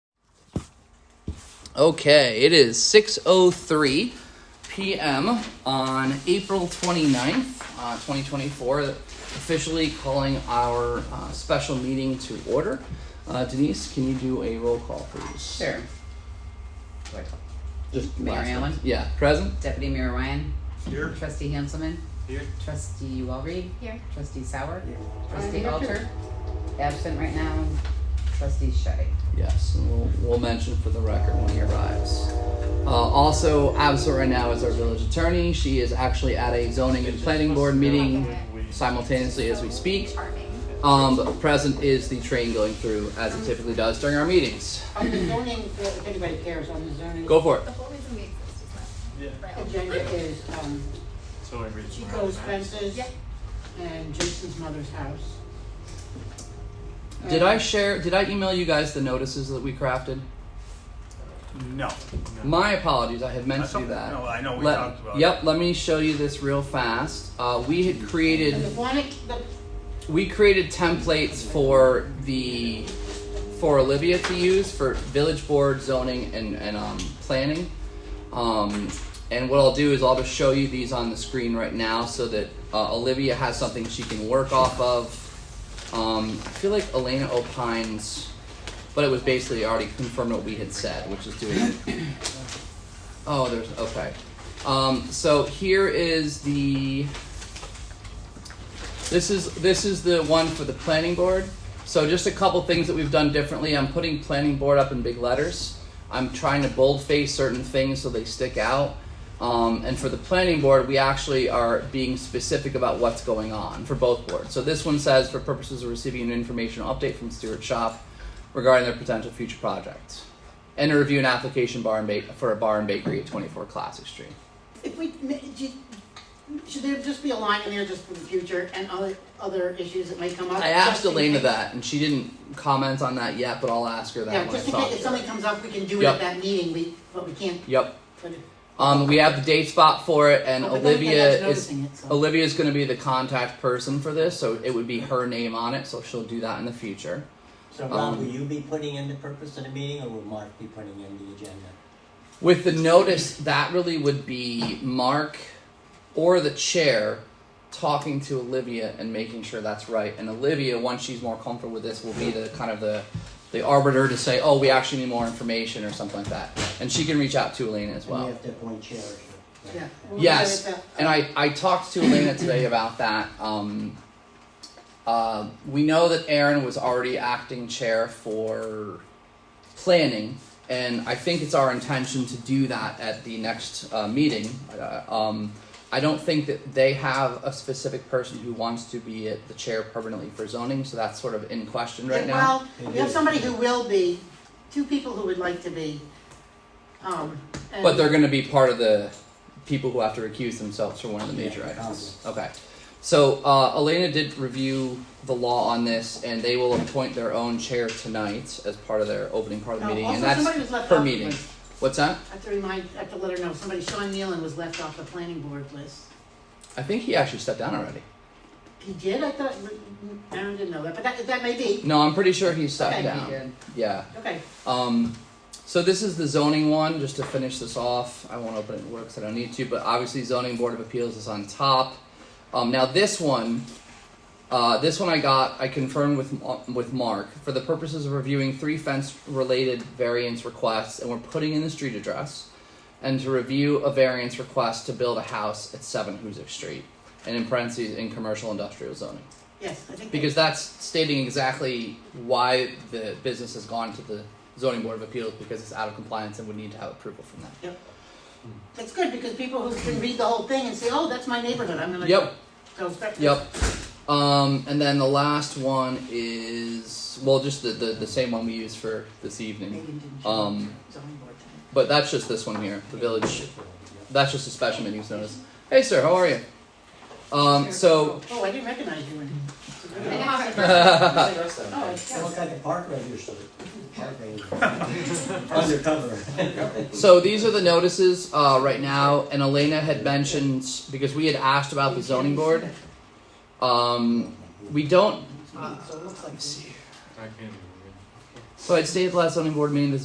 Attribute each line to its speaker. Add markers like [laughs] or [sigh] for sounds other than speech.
Speaker 1: Okay, it is 6:03 p.m. on April 29th, uh, 2024. Officially calling our uh, special meeting to order. Uh, Denise, can you do a roll call, please?
Speaker 2: Sure.
Speaker 1: Just
Speaker 2: Mayor
Speaker 1: last
Speaker 2: Allen?
Speaker 1: name. Yeah, present.
Speaker 2: Deputy Mayor Ryan.
Speaker 3: Here.
Speaker 2: Trustee Hanselman.
Speaker 3: Here.
Speaker 2: Trustee Walry.
Speaker 4: Here.
Speaker 2: Trustee Sauer. Trustee
Speaker 4: Here.
Speaker 2: Alter. Absent right now. Trustee Shetty.
Speaker 1: Yes, and we'll, we'll mention for the record when he arrives. Uh, also absent right now is our village attorney. She is actually at a zoning and planning board meeting simultaneously as we speak.
Speaker 4: Charming.
Speaker 1: Um, but present is the train going through as it typically does during our meetings.
Speaker 5: On the zoning, if anybody cares, on the zoning.
Speaker 1: Go for it.
Speaker 4: The whole reason we exist is
Speaker 3: Yeah.
Speaker 4: not real.
Speaker 5: Agenda is, um,
Speaker 3: So I reached. my
Speaker 5: Chico's
Speaker 3: max.
Speaker 5: fences
Speaker 4: Yeah.
Speaker 5: and Jason's mother's house.
Speaker 1: Did I share? Did I email you guys the notices that we crafted?
Speaker 3: No. no.
Speaker 1: My apologies, I had meant
Speaker 3: That's
Speaker 1: to do
Speaker 3: okay.
Speaker 1: that.
Speaker 3: No, I know we
Speaker 1: Let-
Speaker 3: talked about
Speaker 1: Yep, let me show you this real fast. Uh, we had
Speaker 5: And the
Speaker 1: created
Speaker 5: one, the,
Speaker 1: we created templates for the for Olivia to use for village board zoning and and um, planning. Um, and what I'll do is I'll just show you these on the screen right now so that uh, Olivia has something she can work off of. Um, I feel like Elena opines, but it was basically already confirmed what we had said, which is doing. Oh, there's okay. Um, so here is the. This is this is the one for the planning board. So just a couple things that we've done differently. I'm putting planning board up in big letters. I'm trying to boldface certain things so they stick out. Um, and for the planning board, we actually are being specific about what's going on for both boards. So this one says, for purposes of receiving an informational update from Stewart Shop regarding their potential future projects, and to review an application bar and ba- for a bar and bakery at 24 Classic Street.
Speaker 5: if we, ma- do you- should there just be a line in there just for the future and other, other issues that may come up?
Speaker 1: I asked
Speaker 5: just in
Speaker 1: Elena
Speaker 5: case-
Speaker 1: that, and she didn't comment on that yet, but I'll ask her that
Speaker 5: Yeah,
Speaker 1: when I
Speaker 5: just in
Speaker 1: talk
Speaker 5: case
Speaker 1: to
Speaker 5: if
Speaker 1: her.
Speaker 5: something comes up, we can do it
Speaker 1: Yep.
Speaker 5: at that meeting, we, but we can't,
Speaker 1: Yep.
Speaker 5: but. it- Oh,
Speaker 1: Um, we have the date spot for it, and
Speaker 5: but then again,
Speaker 1: Olivia
Speaker 5: that's
Speaker 1: is
Speaker 5: noticing it, so-
Speaker 1: Olivia is going to be the contact person for this, so it would be her name on it. So she'll do that in the future.
Speaker 6: So Rob,
Speaker 1: Um,
Speaker 6: will you be putting in the purpose of the meeting or will Mark be putting in the agenda?
Speaker 1: With the notice, that really would be Mark or the chair talking to Olivia and making sure that's right. And Olivia, once she's more comfortable with this, will be the kind of the the arbiter to say, "Oh, we actually need more information" or something like that. And she can reach out to Elena as well.
Speaker 6: And you have to appoint chair. or-
Speaker 5: Yeah. we'll do
Speaker 1: Yes,
Speaker 5: it at that-
Speaker 1: and I, I talked to Elena today about that. Um, uh, we know that Aaron was already acting chair for planning, and I think it's our intention to do that at the next uh, meeting. Uh, um, I don't think that they have a specific person who wants to be at the chair permanently for zoning, so that's sort of in question right now.
Speaker 5: Well, we have somebody who will be, two people who would like to be, um, and.
Speaker 1: But they're going to be part of the people who have to recuse themselves for one of the major
Speaker 6: Yeah,
Speaker 1: items. Okay. So uh, Elena did review the law on this, and they will appoint their own chair tonight as part of their opening part of the
Speaker 5: Oh,
Speaker 1: meeting, and
Speaker 5: also
Speaker 1: that's
Speaker 5: somebody was left
Speaker 1: her
Speaker 5: off the
Speaker 1: meeting.
Speaker 5: list.
Speaker 1: What's that?
Speaker 5: I have to remind, I have to let her know, somebody, Sean Nealon was left off the planning board list.
Speaker 1: I think he actually stepped down already.
Speaker 5: He did, I thought, Aaron didn't know that, but that, that may be,
Speaker 1: No, I'm pretty sure he stepped
Speaker 5: Okay, he
Speaker 1: down. Yeah.
Speaker 5: okay.
Speaker 1: Um, so this is the zoning one, just to finish this off. I won't open it in works, I don't need to, but obviously zoning board of appeals is on top. Um, now this one, uh, this one I got, I confirmed with, Ma- with Mark, for the purposes of reviewing three fence-related variance requests, and we're putting in the street address, and to review a variance request to build a house at seven Hoosick Street, and in parentheses, in commercial industrial zoning.
Speaker 5: Yes, I think.
Speaker 1: Because that's stating exactly why the business has gone to the zoning board of appeals because it's out of compliance and would need to have approval from them.
Speaker 5: That's good, because people who can read the whole thing and say, oh, that's my neighborhood, I'm gonna
Speaker 1: Yep,
Speaker 5: go inspect it.
Speaker 1: yep. Um, and then the last one is well, just the, the, the same one we used for this evening.
Speaker 5: Megan didn't show up
Speaker 1: Um,
Speaker 5: to zoning board tonight.
Speaker 1: but that's just this one here, the village. That's just a special menu notice. Hey, sir, how are you? Um, so
Speaker 5: Oh, I didn't recognize you when.
Speaker 2: [laughs]
Speaker 5: Oh,
Speaker 6: [laughs] I look like a park ranger, so, park
Speaker 1: [laughs]
Speaker 6: ranger. Undercover.
Speaker 1: [laughs] So these are the notices uh, right now, and Elena had mentioned because we had asked about the zoning board. Um, we don't.
Speaker 5: Oh, so it looks like.
Speaker 1: So I'd stayed at the last zoning board meeting. The